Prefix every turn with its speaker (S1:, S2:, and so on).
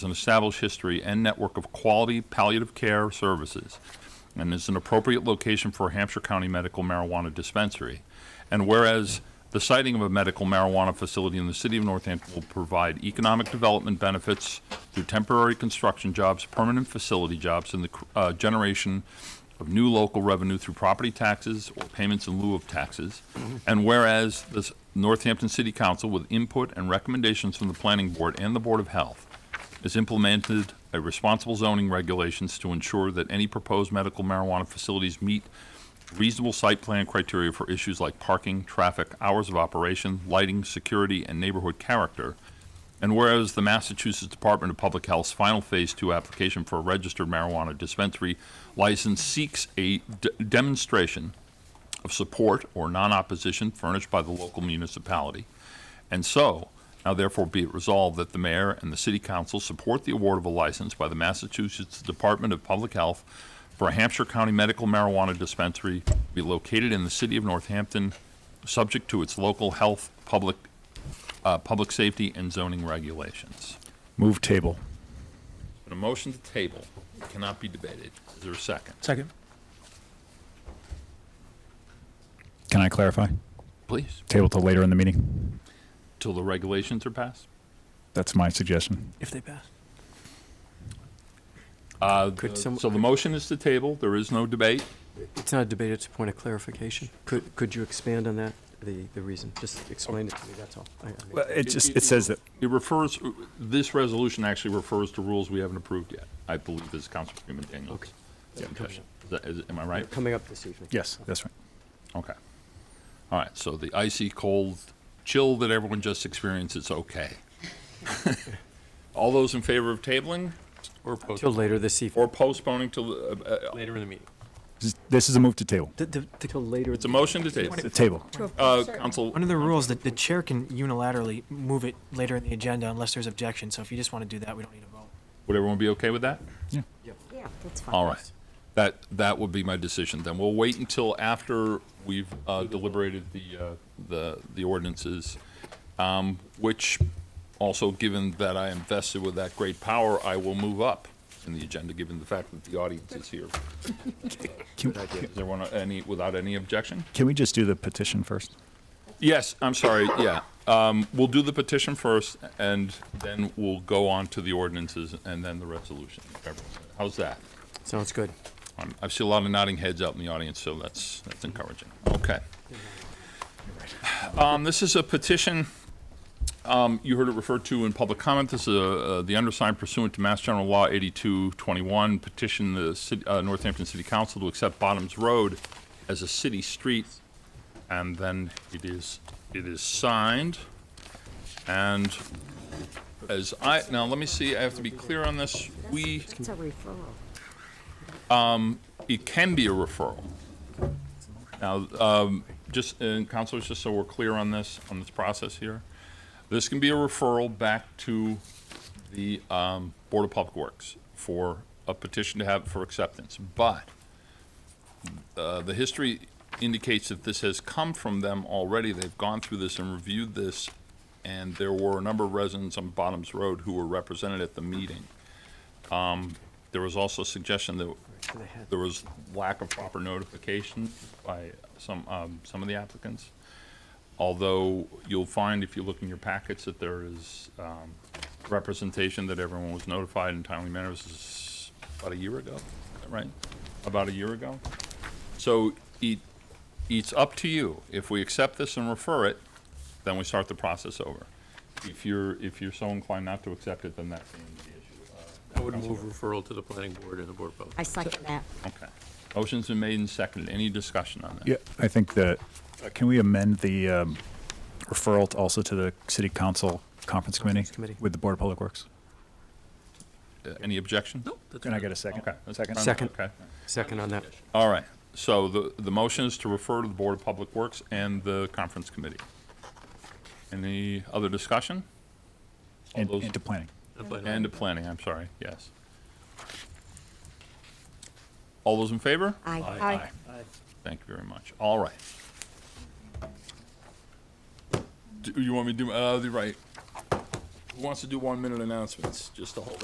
S1: an established history and network of quality palliative care services and is an appropriate location for a Hampshire County medical marijuana dispensary. And whereas the siting of a medical marijuana facility in the city of Northampton will provide economic development benefits through temporary construction jobs, permanent facility jobs, and the cr- uh, generation of new local revenue through property taxes or payments in lieu of taxes. And whereas the s- Northampton City Council, with input and recommendations from the Planning Board and the Board of Health, has implemented a responsible zoning regulations to ensure that any proposed medical marijuana facilities meet reasonable site plan criteria for issues like parking, traffic, hours of operation, lighting, security, and neighborhood character. And whereas the Massachusetts Department of Public Health's final Phase 2 application for a registered marijuana dispensary license seeks a d- demonstration of support or non-opposition furnished by the local municipality. And so, now therefore be it resolved that the mayor and the city council support the award of a license by the Massachusetts Department of Public Health for a Hampshire County medical marijuana dispensary to be located in the city of Northampton, subject to its local health, public, uh, public safety, and zoning regulations.
S2: Move table.
S1: A motion to table cannot be debated. Is there a second?
S3: Second.
S2: Can I clarify?
S1: Please.
S2: Table till later in the meeting.
S1: Till the regulations are passed?
S2: That's my suggestion.
S3: If they pass.
S1: Uh,
S4: Could some-
S1: So the motion is to table. There is no debate.
S4: It's not a debate, it's a point of clarification. Could, could you expand on that, the, the reason? Just explain it to me, that's all. I- I-
S2: Well, it just, it says that,
S1: It refers, this resolution actually refers to rules we haven't approved yet, I believe, is Councilman Daniels.
S4: Okay.
S1: Impression. Is that- is- Am I right?
S4: Coming up this evening.
S2: yes, that's right.
S1: Okay. All right, so the icy cold chill that everyone just experienced is okay. All those in favor of tabling or
S4: Till
S1: postponing?
S4: later this evening.
S1: Or postponing till, uh, uh,
S5: Later in the meeting.
S2: This- This is a move to table.
S4: Till later.
S1: it's a motion to table.
S2: The table.
S1: Uh, Council,
S6: Under the rules, the, the chair can unilaterally move it later in the agenda unless there's objection, so if you just want to do that, we don't need a vote.
S1: would everyone be okay with that?
S7: Yeah, that's fine.
S1: Oh. All right. That, that would be my decision then. We'll wait until after we've uh, deliberated the, uh, the, the ordinances, um, which also, given that I am vested with that great power, I will move up in the agenda, given the fact that the audience is here.
S2: Can
S1: Is there one, any, without any objection?
S2: can we just do the petition first?
S1: Yes, I'm sorry, yeah. Um, We'll do the petition first, and then we'll go on to the ordinances and then the resolution. How's that?
S4: Sounds good.
S1: Um, I see a lot of nodding heads out in the audience, so that's, that's encouraging. Okay. Um, This is a petition, um, you heard it referred to in public comment. This is uh, uh, the undersigned pursuant to Mass General Law 8221, petition the cit- uh, Northampton City Council to accept Bottoms Road as a city street. And then it is, it is signed. And as I, now, let me see, I have to be clear on this. We
S7: It's a referral.
S1: it can be a referral. Now, um, just, and councilors, just so we're clear on this, on this process here, this can be a referral back to the um, Board of Public Works for a petition to have for acceptance. But uh, the history indicates that this has come from them already. They've gone through this and reviewed this, and there were a number of residents on Bottoms Road who were represented at the meeting. Um, There was also a suggestion that
S4: To the head.
S1: there was lack of proper notification by some, um, some of the applicants. Although you'll find if you look in your packets that there is, um, representation that everyone was notified in timely manner. This is about a year ago, right? About a year ago. So it, it's up to you. If we accept this and refer it, then we start the process over. If you're, if you're so inclined not to accept it, then that's the end of the issue. Uh,
S5: I would
S1: Councilor.
S5: move referral to the planning board and the board of public.
S7: I second that.
S1: Okay. Motion's been made and seconded. Any discussion on that?
S2: Yeah, I think that, uh, can we amend the um, referral to also to the city council conference
S4: Conference
S2: committee
S4: committee.
S2: with the Board of Public Works?
S1: Uh, Any objection?
S5: No, that's
S2: Can I
S5: fine.
S2: get a second?
S1: Okay. that's
S2: Second?
S1: fine.
S4: Second.
S1: Okay.
S4: Second on that.
S1: All right. So the, the motion is to refer to the Board of Public Works and the Conference Committee. Any other discussion? All
S2: And
S1: those-
S2: and to planning.
S5: That's fine.
S1: And to planning, I'm sorry, yes. All those in favor?
S7: Aye.
S1: Thank you very much. All right. Do you want me to do, uh, the right? Who wants to do one-minute announcements, just to hold